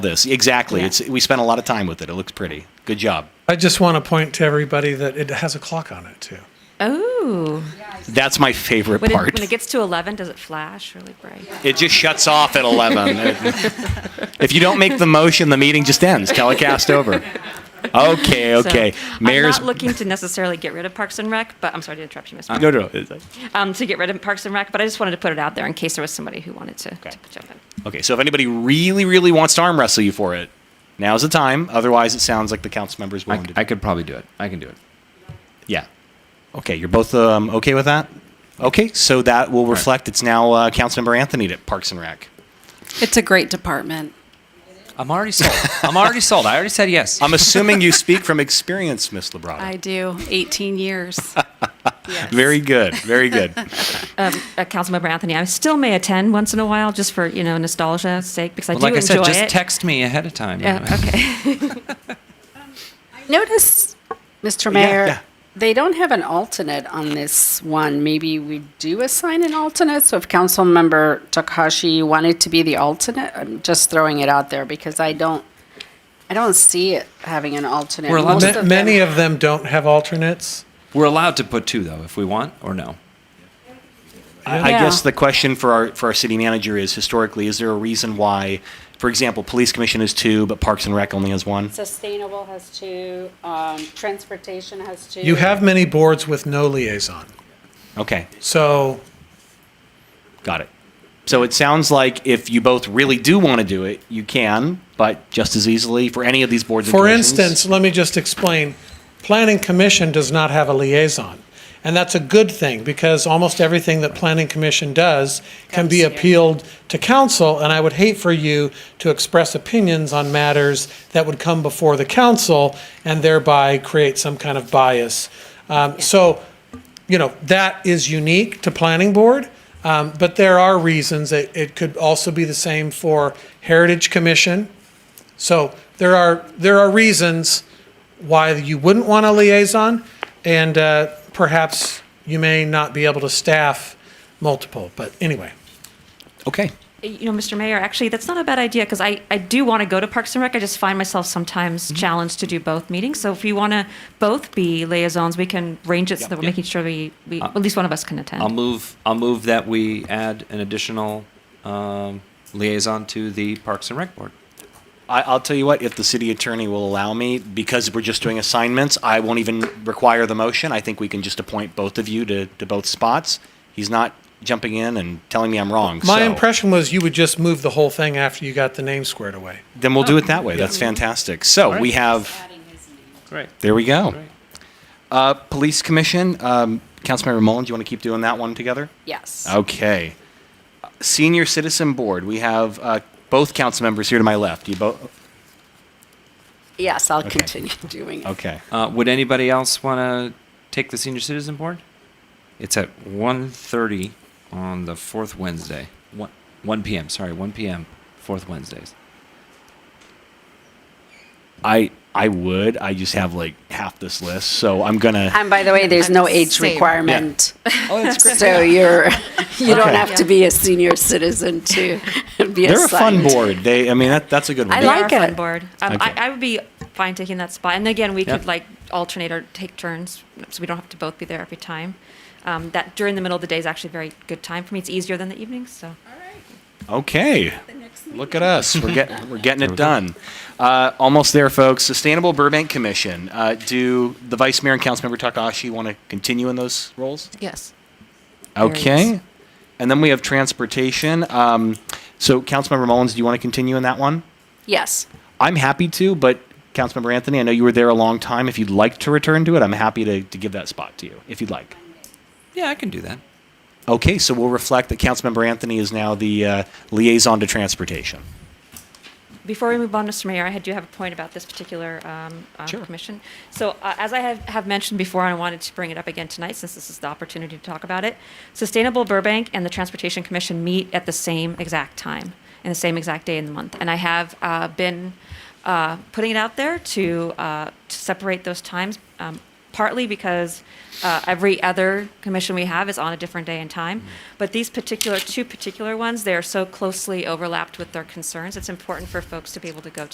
this. Exactly. It's we spent a lot of time with it. It looks pretty. Good job. I just want to point to everybody that it has a clock on it too. Oh, That's my favorite when it, part. when it gets to 11, does it flash really bright? It just shuts off at 11. if you don't make the motion, the meeting just ends. Telecast over. Okay, So, okay. Mayor's. Uh, I'm not looking to necessarily get rid of Parks and Rec, but I'm sorry to interrupt you, Uh-huh. Mr. no, no. no. Um, to get rid of Parks and Rec, but I just wanted to put it out there in case there was somebody who wanted to, Okay. to jump in. Okay, so if anybody really, really wants to arm wrestle you for it, now's the time. Otherwise, it sounds like the council members I, willing to. I could probably do it. I can do it. yeah. Okay, you're both um, okay with that? Okay, so that will reflect it's now uh, Councilmember Anthony at Parks and Rec. It's a great department. I'm already sold. I'm already sold. I already said yes. I'm assuming you speak from experience, Miss Labrada. I do 18 years. Yes. Very good, very good. Uh, Councilmember Anthony, I still may attend once in a while just for, you know, nostalgia's sake, because I Well, do like I enjoy said, just it. text me ahead of time. you Yeah, know. okay. Notice, Mr. Mayor, yeah. they don't have an alternate on this one. Maybe we do assign an alternate. So if Councilmember Takahashi wanted to be the alternate, I'm just throwing it out there because I don't, I don't see it having an alternate. We're allowed Most to- of Ma- them- many of them don't have alternates. We're allowed to put two though, if we want or no. I I Yeah. guess the question for our for our city manager is historically, is there a reason why, for example, police commission is two, but Parks and Rec only has one? Sustainable has two, um, transportation has two. You have many boards with no liaison. Okay, So got it. So it sounds like if you both really do want to do it, you can, but just as easily for any of these boards. and For commissions- instance, let me just explain. Planning Commission does not have a liaison. And that's a good thing because almost everything that Planning Commission does can be Comes here. appealed to council. And I would hate for you to express opinions on matters that would come before the council and thereby create some kind of bias. Um, So, you know, that is unique to planning board. Um, But there are reasons that it could also be the same for Heritage Commission. So there are, there are reasons why you wouldn't want a liaison, and uh, perhaps you may not be able to staff multiple, but anyway. okay, you know, Mr. Mayor, actually, that's not a bad idea because I, I do want to go to Parks and Rec. I just find myself sometimes challenged to do both meetings. So if you want to both be liaisons, we can range it so that we're making sure we, we at least one of us can attend. I'll move. I'll move that we add an additional um, liaison to the Parks and Rec Board. I, I'll tell you what. If the city attorney will allow me, because we're just doing assignments, I won't even require the motion. I think we can just appoint both of you to to both spots. He's not jumping in and telling me I'm wrong. My so- impression was you would just move the whole thing after you got the name squared away. Then we'll do it that way. That's fantastic. So we have. Great. There we go. Uh, Police Commission, um, Councilmember Mullen, do you want to keep doing that one together? Yes. Okay. Senior Citizen Board, we have uh, both council members here to my left. You both, Yes, I'll Okay. continue doing it. okay. Uh, would anybody else want to take the Senior Citizen Board? It's at 1.30 on the fourth Wednesday. 1, 1 p.m. Sorry, 1 p.m. Fourth Wednesdays. I, I would, I just have like half this list, so I'm gonna, And by the way, there's no age Same. requirement. oh, that's great. So you're, you don't Okay. have to be a senior citizen to be They're a fun assigned. board. They, I mean, that, that's a good one. I They are like a fun it. board. Um, Okay. I, I would be fine taking that spot. And again, we Yeah. could like alternate or take turns, so we don't have to both be there every time. Um, that during the middle of the day is actually a very good time for me. It's easier than the evenings, so. Okay. Look at us. We're getting we're getting it done. Uh, almost there, folks. Sustainable Burbank Commission. Uh, do the Vice Mayor and Councilmember Takahashi want to continue in those roles? Yes. Okay. And then we have transportation. Um, so, Councilmember Mullins, do you want to continue in that one? Yes. I'm happy to, but Councilmember Anthony, I know you were there a long time. If you'd like to return to it, I'm happy to, to give that spot to you if you'd like. Yeah, I can do that. Okay, so we'll reflect that Councilmember Anthony is now the uh, liaison to transportation. Before we move on, Mr. Mayor, I do have a point about this particular um, uh, Sure. commission. So uh, as I have, have mentioned before, I wanted to bring it up again tonight since this is the opportunity to talk about it. Sustainable Burbank and the Transportation Commission meet at the same exact time and the same exact day in the month. And I have uh, been uh, putting it out there to, uh, to separate those times. Um, partly because uh, every other commission we have is on a different day and time. But these particular, two particular ones, they are so closely overlapped with their concerns, it's important for folks to be able to go to